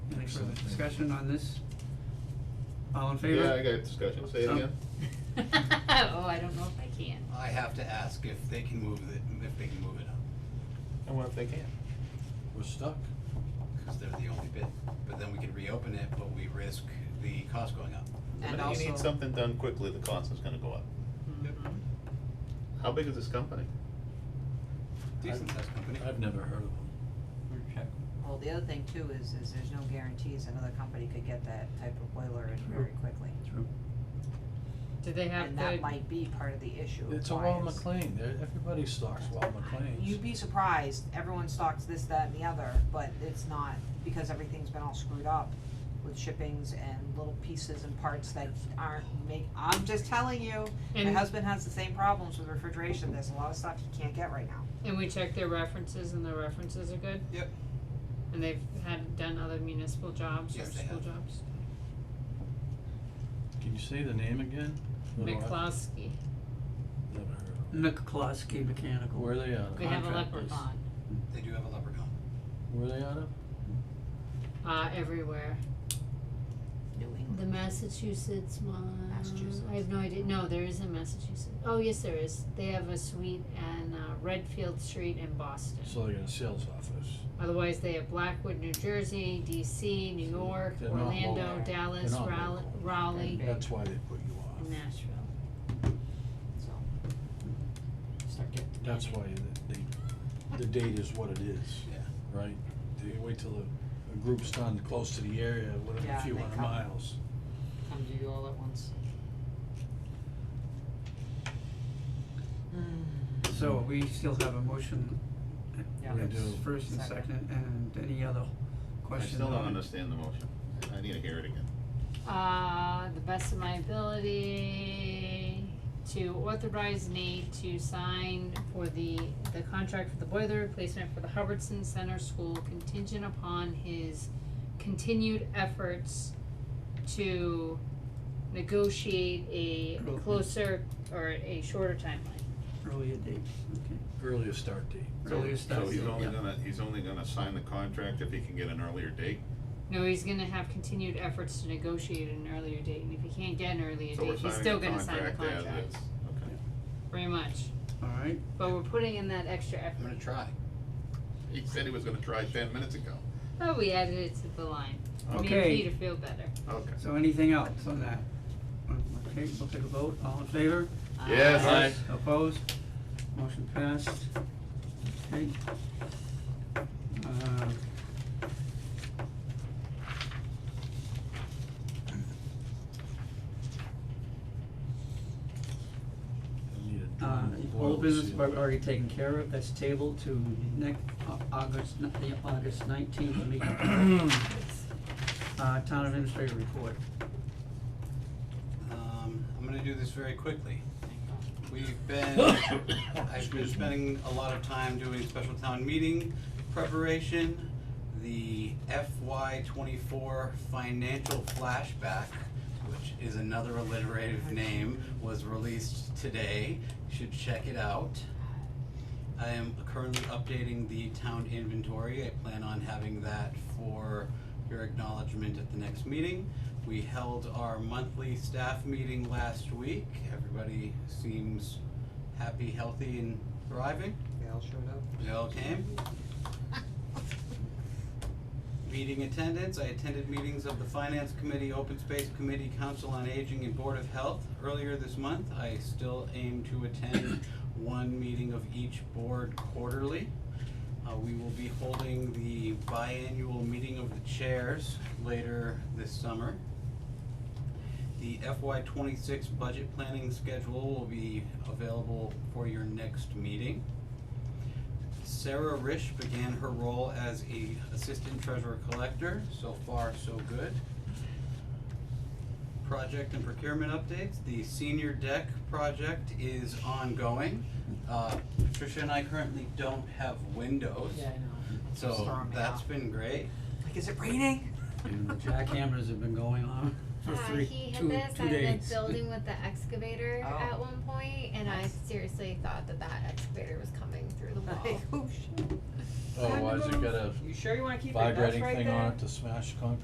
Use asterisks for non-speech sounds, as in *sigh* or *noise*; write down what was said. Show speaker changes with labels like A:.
A: Further
B: Excellent.
A: discussion on this? All in favor?
C: Yeah, I got discussion, say it
A: Um,
C: again.
D: *laughs* Oh, I don't know if I can.
E: I have to ask if they can move it, if they can move it up,
B: And what if they can't? We're stuck.
E: because they're the only bid. But then we can reopen it, but we risk the cost going up.
D: And
C: But You
D: also-
C: need something done quickly, the cost is gonna go up.
D: Mhm.
C: How big is this company?
E: Decent sized company.
B: I've never heard of them.
F: Well, the other thing too is, is there's no guarantees another company could get that type of boiler in very quickly.
A: True.
D: Do they have
F: And
D: the,
F: that might be part of the issue of
B: It's a Wal
F: why it's-
B: McLean, They're- everybody stocks Wal McLean's.
F: You'd be surprised, everyone stocks this, that and the other, but it's not, because everything's been all screwed up with shippings and little pieces and parts that aren't make, I'm just telling you, my
D: And-
F: husband has the same problems with refrigeration, there's a lot of stuff he can't get right now.
D: and we check their references and their references are good?
E: Yep.
D: And they've had, done other municipal jobs or
E: Yes, they
D: school
E: have.
D: jobs?
B: Can you say the name again? Little Rock-
D: McCloskey,
B: Never heard of them.
A: McCloskey Mechanical.
B: Where are they out of?
D: they have a
A: Contractors.
D: leprechaun,
E: They do have a leprechaun.
B: Where are they out of?
D: uh, everywhere.
F: New
D: The Massachusetts one.
F: Massachusetts.
D: I have no idea, no, there is a Massachusetts, oh, yes, there is, they have a suite on, uh, Redfield Street in Boston.
B: So they got a sales office.
D: Otherwise, they have Blackwood, New Jersey, DC, New York,
B: They're not
D: Orlando,
B: local.
D: Dallas,
B: They're not
D: Raleigh,
B: local.
D: Raleigh,
F: Big.
B: That's why they put you
D: and
B: off.
D: Nashville.
F: so. Start getting.
B: That's why the, the, the date is what it is,
E: Yeah.
B: right? They wait till a, a group's done close to the area, whatever, a
F: Yeah,
B: few
F: they
B: hundred
F: come.
B: miles.
F: Come to you all at once. Hmm,
A: So we still have a motion.
F: Yeah.
A: That's
B: We do.
A: First and
F: Second.
A: second, and any other
C: I
A: questions?
C: still don't
A: on it?
C: understand the motion, I need to hear it again.
D: Uh, the best of my ability to authorize Nate to sign for the, the contract for the boiler replacement for the Hubbardson Center School contingent upon his continued efforts to negotiate a
A: Cool.
D: closer or a shorter timeline.
A: Earlier date, okay.
B: Earlier start date.
C: So-
A: Earlier start
C: So he's
A: date,
C: only
A: yeah.
C: gonna, he's only gonna sign the contract if he can get an earlier date,
D: No, he's gonna have continued efforts to negotiate an earlier date, and if he can't get an earlier
C: so we're
D: date, he's
C: signing
D: still
C: the
D: gonna sign the contract.
C: contract as is, okay.
D: Pretty much,
A: All right,
D: but we're putting in that extra
E: I'm gonna
D: effort.
E: try.
C: He said he was gonna try ten minutes ago,
D: Oh, we added it to the line. Made
A: Okay.
D: Peter feel better.
C: okay.
A: so anything else on that? Okay, we'll take a vote, all in favor?
D: Uh,
C: Yes.
B: Aye.
A: Opposed? Motion passed. Okay. Uh,
B: I need a
A: Uh,
B: drum
A: all
B: boil
A: business
B: seal.
A: we've already taken care of, that's tabled to next, Au- August, ni- the August nineteenth
G: *coughs*
A: meeting. Uh, town administrator report.
E: Um, I'm gonna do this very quickly. We've been, I've been spending a lot of time doing special town meeting preparation. The FY twenty-four financial flashback, which is another alliterative name, was released today. You Should check it out. I am currently updating the town inventory. I plan on having that for your acknowledgement at the next meeting. We held our monthly staff meeting last week. Everybody seems happy, healthy, and thriving.
F: They all showed up.
E: They all came. Meeting attendance, I attended meetings of the Finance Committee, Open Space Committee, Council on Aging, and Board of Health earlier this month. I still aim to attend *coughs* one meeting of each board quarterly. Uh, we will be holding the biannual meeting of the chairs later this summer. The FY twenty-six budget planning schedule will be available for your next meeting. Sarah Rish began her role as a assistant treasurer collector. So far, so good. Project and procurement updates. The senior deck project is ongoing. Uh, Patricia and I currently don't have windows,
F: Yeah, I know.
E: so
F: Storming
E: that's
F: out.
E: been great.
F: Like, is it raining?
A: And the jackhammers have been going on for three, two, two days.
G: Uh, he hit the side of the building with the excavator
F: Oh.
G: at one point, and I
F: Nice.
G: seriously thought that that excavator was coming through
D: *laughs*
G: the wall.
F: Like, *laughs* oh, shit.
B: Oh, why is it got a
F: You sure you wanna keep it? That's
B: vibrating
F: right
B: thing
F: there.
B: on it to smash concrete?